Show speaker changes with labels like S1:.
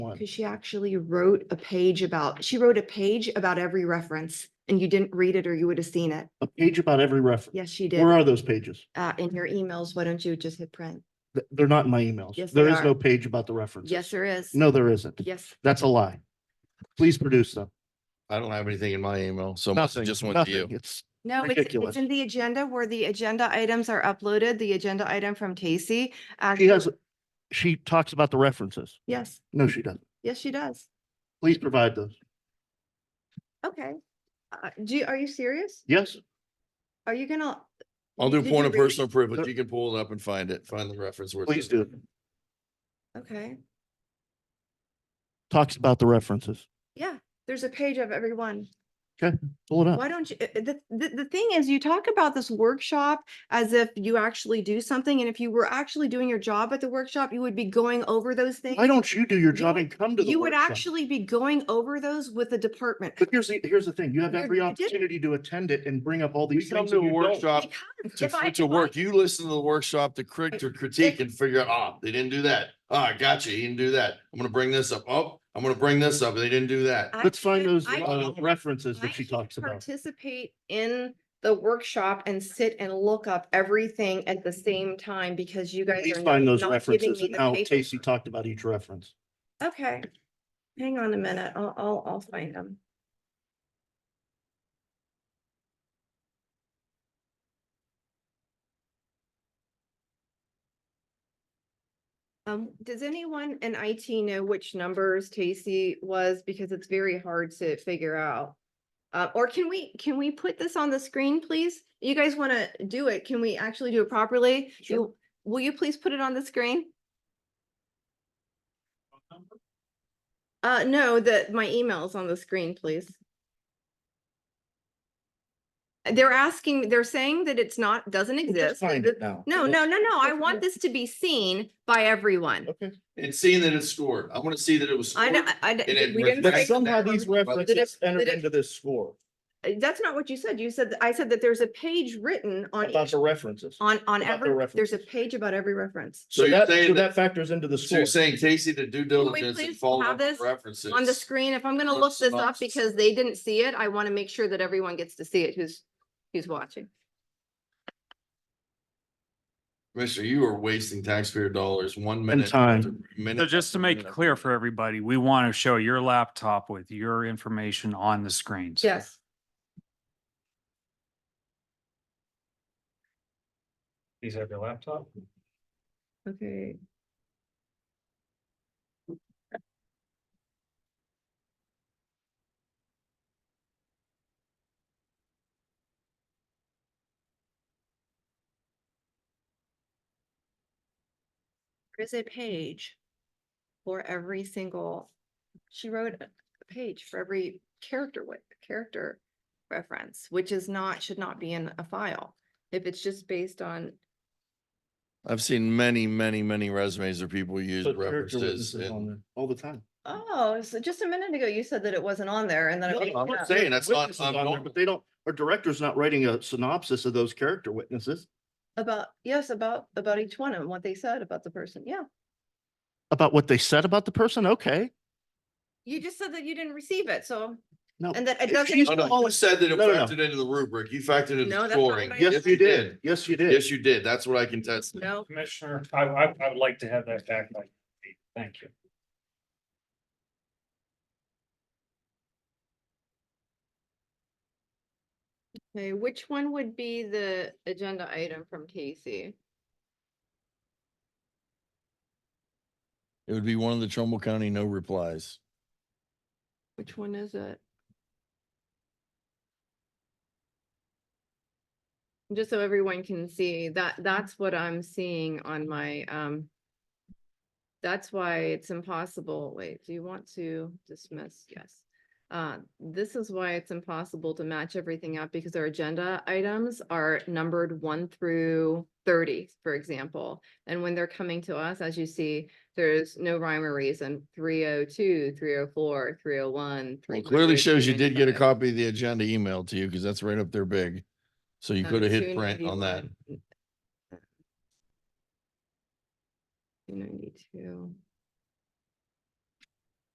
S1: on.
S2: Because she actually wrote a page about, she wrote a page about every reference and you didn't read it or you would have seen it.
S1: A page about every reference.
S2: Yes, she did.
S1: Where are those pages?
S2: Uh, in your emails, why don't you just hit print?
S1: Th- They're not in my emails.
S2: Yes,
S1: There
S2: they
S1: is
S2: are.
S1: no page about the references.
S2: Yes, there is.
S1: No, there isn't.
S2: Yes,
S1: That's a lie. Please produce them.
S3: I don't have anything in my email, so must have
S1: Nothing,
S3: just went to
S1: nothing.
S3: you.
S1: It's,
S2: no, it's,
S1: Ridiculous.
S2: it's in the agenda where the agenda items are uploaded, the agenda item from
S1: she
S2: Tacey.
S1: has,
S2: actually-
S1: she talks about the references.
S2: Yes,
S1: No, she doesn't.
S2: yes, she does.
S1: Please provide those.
S2: Okay. Uh, do, you- are you serious?
S1: Yes,
S2: Are you gonna?
S3: I'll do
S2: Did
S3: point
S2: you
S3: of
S2: read-
S3: personal privilege.
S1: There-
S3: You can pull it up and find it, find the reference. where it
S1: please
S3: says-
S1: do.
S2: Okay,
S1: Talks about the references.
S2: yeah, there's a page of everyone.
S1: Pull it up.
S2: Why don't you, uh, uh, the, the, the thing is, you talk about this workshop as if you actually do something, and if you were actually doing your job at the workshop, you would be going over those things.
S1: Why don't you do your
S2: You
S1: job
S2: would-
S1: and come to the
S2: You would
S1: workshop?
S2: actually be going over those with the department.
S1: But here's the, here's the thing. You have
S2: You're-
S1: every
S2: you didn't.
S1: opportunity to attend it and bring up all
S3: We
S1: these
S3: come
S1: things.
S3: to
S1: and
S3: a
S1: you don't.
S3: workshop
S2: Because
S3: to,
S2: if I-
S3: to
S2: if I-
S3: work. You listen to the workshop to crit, to critique and figure out, ah, they didn't do that. Ah, gotcha. He didn't do that. I'm gonna bring this up. Oh, I'm gonna bring this up. They didn't do that.
S2: I
S1: Let's find
S2: can't-
S1: those
S2: I
S1: uh,
S2: can't-
S1: references
S2: I
S1: that she
S2: can't
S1: talks about.
S2: Participate in the workshop and sit and look up everything at the same time because you guys
S1: Please
S2: are.
S1: find those
S2: not giving
S1: references
S2: me
S1: and
S2: the
S1: how
S2: paper.
S1: Casey talked about each reference.
S2: Okay, hang on a minute, I'll, I'll, I'll find them. Um, does anyone in IT know which numbers Tacey was, because it's very hard to figure out? Uh, or can we, can we put this on the screen, please? You guys want to do it, can we actually do it properly?
S1: Sure.
S2: You- Will you please put it on the screen? Uh, no, the, my email's on the screen, please. They're asking, they're saying that it's not, doesn't
S1: Just
S2: exist.
S1: find
S2: that-
S1: it now.
S2: No, no, no, no, I
S1: Okay.
S2: want this to be seen by everyone.
S1: Okay.
S3: And seeing that it's scored. I wanna see that it was.
S2: I,
S3: scored.
S2: don't- I,
S3: And it
S2: don't- we didn't.
S3: reflects
S1: But
S2: break
S1: somehow
S2: the-
S1: these
S2: Did it-
S1: references entered
S2: did it-
S1: into this score
S2: uh, That's not what you said. You said, I said that there's a page written on,
S1: about
S2: each-
S1: the references.
S2: on, on
S1: about the
S2: every, there's a
S1: references.
S2: page about every reference.
S3: So
S1: So
S3: you're
S1: that, so
S3: saying that,
S1: that factors into the
S3: so you're
S1: score.
S3: saying Casey did due diligence and
S2: please
S3: followed
S2: have
S3: up with
S2: this
S3: references.
S2: On the screen, if I'm gonna
S3: or
S2: look this up
S3: synopsis.
S2: because they didn't see it, I want to make sure that everyone gets to see it who's, who's watching.
S3: Mister, you are wasting taxpayer dollars, one minute.
S1: time.
S3: after minute
S4: So just
S3: after
S4: to make it
S3: minute
S4: clear
S3: after
S4: for everybody, we want to show your laptop with your information on the screens.
S2: Yes.
S4: These have your laptop?
S2: Okay. There is a page for every single, she wrote a a page for every character with, character reference, which is not, should not be in a file. If it's just based on
S3: I've seen many, many, many resumes of people use
S1: Put character
S3: references.
S1: witnesses on
S3: and-
S1: there All the time.
S2: Oh, so just a minute ago you said that it wasn't on there and then. it
S1: No,
S2: was
S1: I'm
S2: on
S1: not
S2: there.
S3: saying that's not
S1: Witnesses on there,
S3: abnormal.
S1: But they don't, our director's not writing a synopsis of those character witnesses
S2: About, yes, about, about each one and what they said about the person. Yeah.
S1: about what they said about the person. Okay.
S2: You just said that you didn't receive it, so.
S1: No.
S2: And that it
S1: If
S2: doesn't.
S1: she's
S3: Oh, no,
S2: exist.
S3: you said that it
S1: No, no, no.
S3: factored into the rubric. You factored into
S2: No, that's
S3: the
S2: not
S3: scoring.
S2: what I
S1: Yes, you did. Yes, you did.
S3: Yes, you did. That's what I can test.
S2: No,
S4: Commissioner, I, I, I would like to have that back. by- Thank you.
S2: okay, which one would be the agenda item from Casey?
S3: It would be one of the Trumbull County no replies.
S2: Which one is it? Just so everyone can see, that, that's what I'm seeing on my, um. That's why it's impossible, wait, do you want to dismiss? Yes. Uh, this is why it's impossible to match everything up because our agenda items are numbered one through thirty, for example. And when they're coming to us, as you see, there's no rhyme or reason, 302, 304, 301,
S3: Well, clearly shows you did get a copy of the agenda emailed to you because that's right up there big. So you
S2: Uh,
S3: could have hit print on
S2: Mm.
S3: that.
S2: 291. Two ninety-two.